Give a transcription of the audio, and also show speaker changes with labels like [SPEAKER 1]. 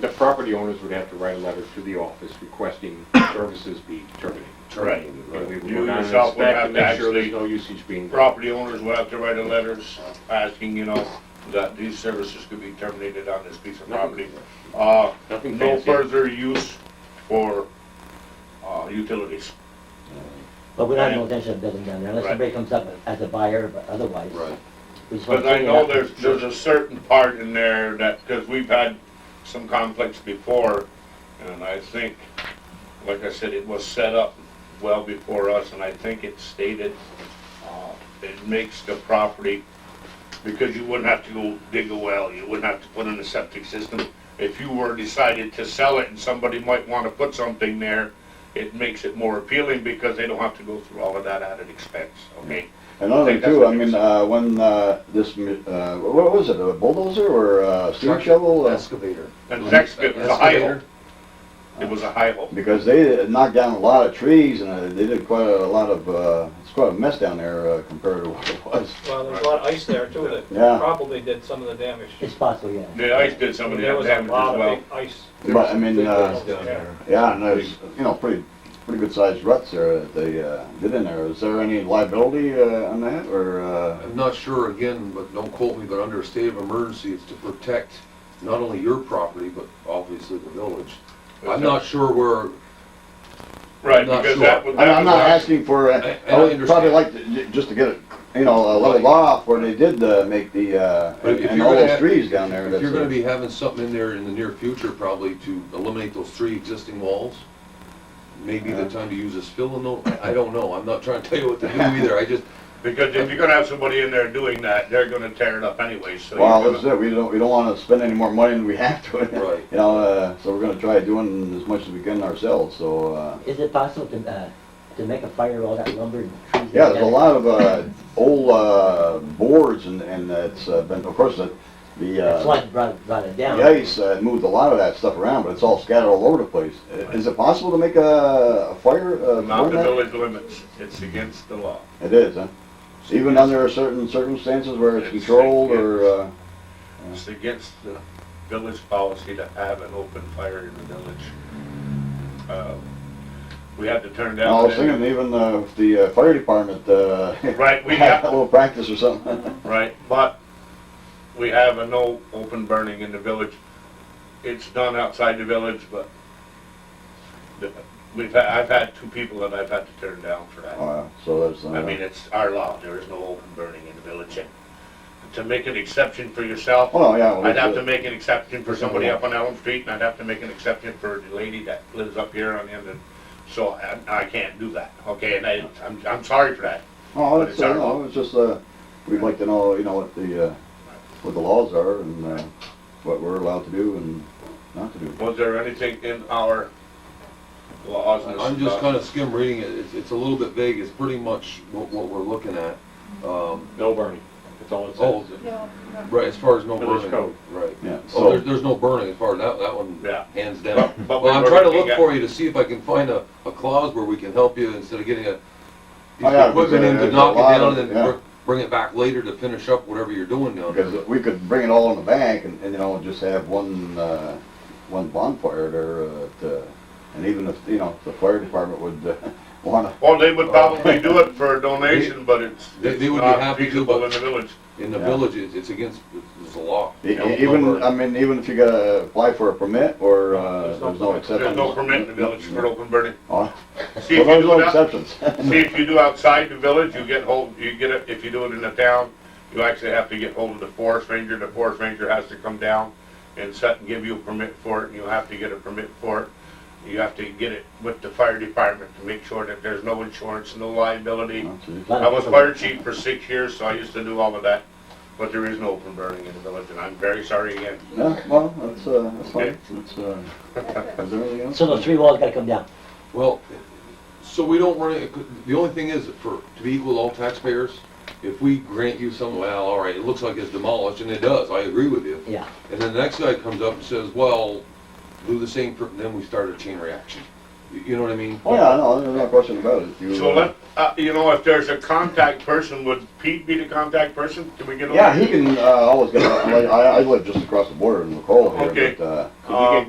[SPEAKER 1] The property owners would have to write a letter to the office requesting services be terminated.
[SPEAKER 2] Right.
[SPEAKER 1] And we would
[SPEAKER 2] You
[SPEAKER 1] go down and
[SPEAKER 2] yourself would
[SPEAKER 1] inspect
[SPEAKER 2] have
[SPEAKER 1] and
[SPEAKER 2] to
[SPEAKER 1] make sure there's
[SPEAKER 2] actually-
[SPEAKER 1] no usage being.
[SPEAKER 2] Property owners will have to write a letters asking, you know, that these services could be terminated on this piece of property. Uh,
[SPEAKER 1] Nothing
[SPEAKER 2] no
[SPEAKER 1] fancy.
[SPEAKER 2] further use for, uh, utilities.
[SPEAKER 3] But we don't have no intention of building down there unless
[SPEAKER 2] Right.
[SPEAKER 3] somebody comes up as a buyer, but otherwise. we just wanna
[SPEAKER 2] But I
[SPEAKER 3] clean it
[SPEAKER 2] know
[SPEAKER 3] up.
[SPEAKER 2] there's, there's a certain part in there that, because we've had some conflicts before, and I think, like I said, it was set up well before us, and I think it stated, uh, it makes the property, because you wouldn't have to go dig a well, you wouldn't have to put in a septic system. If you were decided to sell it and somebody might want to put something there, it makes it more appealing because they don't have to go through all of that added expense, okay?
[SPEAKER 4] Another
[SPEAKER 2] think
[SPEAKER 4] thing
[SPEAKER 2] that's
[SPEAKER 4] too,
[SPEAKER 2] what
[SPEAKER 4] I
[SPEAKER 2] he was
[SPEAKER 4] mean, uh, when, uh, this, mi- uh, what was it, a bulldozer or a steam
[SPEAKER 5] Truck.
[SPEAKER 4] shovel? Uh,
[SPEAKER 5] Excavator.
[SPEAKER 2] And the next bit was a high hole.
[SPEAKER 5] Excavator.
[SPEAKER 2] It was a high hole.
[SPEAKER 4] Because they knocked down a lot of trees and uh, they did quite a lot of, uh, it's quite a mess down there uh, compared to what it was.
[SPEAKER 6] Well, there's a lot of ice there too that
[SPEAKER 4] Yeah.
[SPEAKER 6] probably did some of the damage.
[SPEAKER 3] It's possible, yeah.
[SPEAKER 2] The ice did some of
[SPEAKER 6] And
[SPEAKER 2] the
[SPEAKER 6] There was a
[SPEAKER 2] damage as
[SPEAKER 6] lot of
[SPEAKER 2] well.
[SPEAKER 6] big ice.
[SPEAKER 4] But I mean, uh,
[SPEAKER 6] down there.
[SPEAKER 4] yeah, and there's, you know, pretty, pretty good sized ruts there that they, uh, did in there. Is there any liability, uh, on that or, uh?
[SPEAKER 5] I'm not sure again, but don't quote me, but under a state of emergency, it's to protect not only your property, but obviously the village. I'm not sure where,
[SPEAKER 2] Right,
[SPEAKER 5] I'm not
[SPEAKER 2] because
[SPEAKER 5] sure.
[SPEAKER 2] that was.
[SPEAKER 4] I'm,
[SPEAKER 2] that
[SPEAKER 4] I'm not
[SPEAKER 2] was-
[SPEAKER 4] asking for, uh,
[SPEAKER 5] I- I
[SPEAKER 4] I would
[SPEAKER 5] understand.
[SPEAKER 4] probably like to, j- just to get it, you know, uh, leveled
[SPEAKER 5] Right.
[SPEAKER 4] off where they did, uh, make the, uh,
[SPEAKER 5] But if
[SPEAKER 4] and
[SPEAKER 5] you're
[SPEAKER 4] all
[SPEAKER 5] gonna
[SPEAKER 4] those
[SPEAKER 5] have-
[SPEAKER 4] trees down there.
[SPEAKER 5] if
[SPEAKER 4] that's,
[SPEAKER 5] you're
[SPEAKER 4] uh,
[SPEAKER 5] gonna be having something in there in the near future probably to eliminate those three existing walls, maybe the time to use is fill in those, I don't know, I'm not trying to tell you what to do either, I just,
[SPEAKER 2] Because if you're gonna have somebody in there doing that, they're gonna tear it up anyway, so.
[SPEAKER 4] Well,
[SPEAKER 2] you're
[SPEAKER 4] that's
[SPEAKER 2] gonna-
[SPEAKER 4] it, we don't, we don't wanna spend any more money than we have to.
[SPEAKER 5] Right.
[SPEAKER 4] You know, uh, so we're gonna try doing as much as we can ourselves, so, uh,
[SPEAKER 3] Is it possible to, uh, to make a fire with all that lumber and trees?
[SPEAKER 4] yeah, there's a lot of, uh, old, uh, boards and, and it's uh, been, of course, the, the,
[SPEAKER 3] The
[SPEAKER 4] uh,
[SPEAKER 3] flood brought, brought it down.
[SPEAKER 4] the ice uh, moved a lot of that stuff around, but it's all scattered all over the place. I- Is it possible to make a a fire, uh,
[SPEAKER 2] Not
[SPEAKER 4] burn
[SPEAKER 2] the
[SPEAKER 4] that?
[SPEAKER 2] village limits, it's against the law.
[SPEAKER 4] It is, huh? Even under certain circumstances where it's
[SPEAKER 2] It's-
[SPEAKER 4] controlled
[SPEAKER 2] it's-
[SPEAKER 4] or, uh,
[SPEAKER 2] It's against the village policy to have an open fire in the village. Uh, We had to turn
[SPEAKER 4] I
[SPEAKER 2] down.
[SPEAKER 4] was thinking even, uh, if the uh, fire department, uh,
[SPEAKER 2] Right, we
[SPEAKER 4] had
[SPEAKER 2] have,
[SPEAKER 4] a little practice or something.
[SPEAKER 2] right? But we have a no open burning in the village. It's done outside the village, but the- we've, had- I've had two people that I've had to turn down for that.
[SPEAKER 4] Uh, so that's, uh,
[SPEAKER 2] I mean, it's our law, there is no open burning in the village. And To make an exception for yourself,
[SPEAKER 4] oh, no, yeah. well,
[SPEAKER 2] I'd
[SPEAKER 4] that's
[SPEAKER 2] have to
[SPEAKER 4] it.
[SPEAKER 2] make an exception for somebody up on Elm Street, and I'd have to make an exception for the lady that lives up here on the end, and so I, I can't do that, okay? And I, I'm, I'm sorry for that.
[SPEAKER 4] Oh,
[SPEAKER 2] but
[SPEAKER 4] it's,
[SPEAKER 2] it's our
[SPEAKER 4] uh, no, it's just, uh, we'd like to know, you know, what the, uh, what the laws are and, uh, what we're allowed to do and not to do.
[SPEAKER 2] Was there anything in our laws and
[SPEAKER 5] I'm just
[SPEAKER 2] stuff?
[SPEAKER 5] kinda skim reading it, it's, it's a little bit vague, it's pretty much what, what we're looking at. Um,
[SPEAKER 1] No burning, that's all it
[SPEAKER 5] oh,
[SPEAKER 1] says.
[SPEAKER 7] No, no.
[SPEAKER 5] right, as far as no
[SPEAKER 1] Village
[SPEAKER 5] burning.
[SPEAKER 1] code.
[SPEAKER 5] Right.
[SPEAKER 4] Yeah,
[SPEAKER 5] Oh, there,
[SPEAKER 4] so,
[SPEAKER 5] there's no burning as far as that, that one,
[SPEAKER 2] Yeah.
[SPEAKER 5] hands down.
[SPEAKER 2] But- but
[SPEAKER 5] Well, I'm
[SPEAKER 2] we're
[SPEAKER 5] trying to
[SPEAKER 2] looking
[SPEAKER 5] look
[SPEAKER 2] at-
[SPEAKER 5] for you to see if I can find a, a clause where we can help you instead of getting a piece
[SPEAKER 4] Oh, yeah,
[SPEAKER 5] of equipment in to
[SPEAKER 4] there's a
[SPEAKER 5] knock it
[SPEAKER 4] lot
[SPEAKER 5] down
[SPEAKER 4] of-
[SPEAKER 5] and
[SPEAKER 4] yeah.
[SPEAKER 5] then br- bring it back later to finish up whatever you're doing down there.
[SPEAKER 4] because we could bring it all in the bank and, and, you know, just have one, uh, one bonfire there, uh, to, and even if, you know, the fire department would, uh, wanna,
[SPEAKER 2] Well, they would probably do it for a donation, but it's,
[SPEAKER 5] They-
[SPEAKER 2] it's
[SPEAKER 5] they would be
[SPEAKER 2] not
[SPEAKER 5] happy to,
[SPEAKER 2] feasible
[SPEAKER 5] but-
[SPEAKER 2] in the village.
[SPEAKER 5] In the
[SPEAKER 4] Yeah.
[SPEAKER 5] village, it's, it's against, it's a law.
[SPEAKER 4] e-
[SPEAKER 5] No- no
[SPEAKER 4] even,
[SPEAKER 5] burning.
[SPEAKER 4] I mean, even if you gotta apply for a permit or, uh,
[SPEAKER 6] There's no
[SPEAKER 4] there's no
[SPEAKER 6] permit.
[SPEAKER 4] exceptions.
[SPEAKER 2] There's no permit in the village for open burning.
[SPEAKER 4] Oh,
[SPEAKER 2] See
[SPEAKER 4] Well,
[SPEAKER 2] if you
[SPEAKER 4] there's
[SPEAKER 2] do
[SPEAKER 4] no
[SPEAKER 2] it out,
[SPEAKER 4] exceptions.
[SPEAKER 2] see if you do outside the village, you get hold, you get it, if you do it in the town, you actually have to get hold of the forest ranger, the forest ranger has to come down and set and give you a permit for it, and you have to get a permit for it. You have to get it with the fire department to make sure that there's no insurance, no liability.
[SPEAKER 4] Oh, geez.
[SPEAKER 3] Lot
[SPEAKER 2] I
[SPEAKER 3] of
[SPEAKER 2] was
[SPEAKER 3] people-
[SPEAKER 2] fire chief for six years, so I used to do all of that, but there is no open burning in the village, and I'm very sorry again.
[SPEAKER 4] Yeah, well, that's, uh, that's fine, that's, uh, is there anything else?
[SPEAKER 3] So those three walls gotta come down.
[SPEAKER 5] Well, so we don't run it, the only thing is, for, to be equal to all taxpayers, if we grant you some, well, all right, it looks like it's demolished, and it does, I agree with you.
[SPEAKER 3] Yeah.
[SPEAKER 5] And then the next guy comes up and says, well, do the same, for- then we start a chain reaction. You- You know what I mean?
[SPEAKER 4] Oh, yeah, no, there's no question about it. You,
[SPEAKER 2] So
[SPEAKER 4] uh,
[SPEAKER 2] let, uh, you know, if there's a contact person, would Pete be the contact person? Can we get? a-
[SPEAKER 4] Yeah, he can, uh, always get, a- I, I live just across the border in McCall here,
[SPEAKER 2] Okay.
[SPEAKER 4] but, uh,
[SPEAKER 2] Uh,